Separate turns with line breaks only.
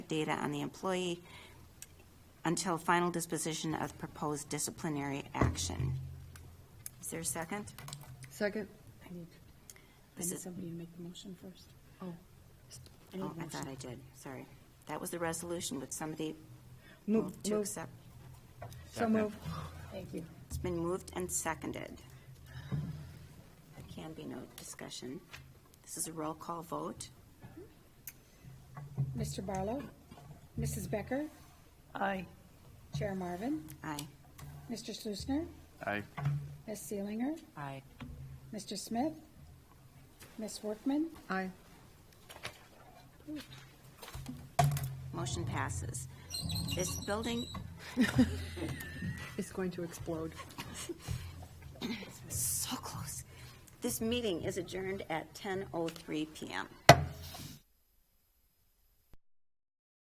data on the employee until final disposition of proposed disciplinary action. Is there a second?
Second?
I need, I
This
need
is,
somebody to make the motion first. Oh. I need a
oh, I thought
motion.
I did, sorry. That was the resolution, would somebody
Move,
move to
move,
accept?
so move.
Thank you.
It's been moved and seconded. There can be no discussion. This is a roll call vote.
Mr. Barlow? Mrs. Becker?
Aye.
Chair Marvin?
Aye.
Mr. Slusner?
Aye.
Ms. Seelinger?
Aye.
Mr. Smith? Ms. Workman?
Aye.
Motion passes. This building,
It's going to explode.
oh so close. This meeting is adjourned at 10:03 PM.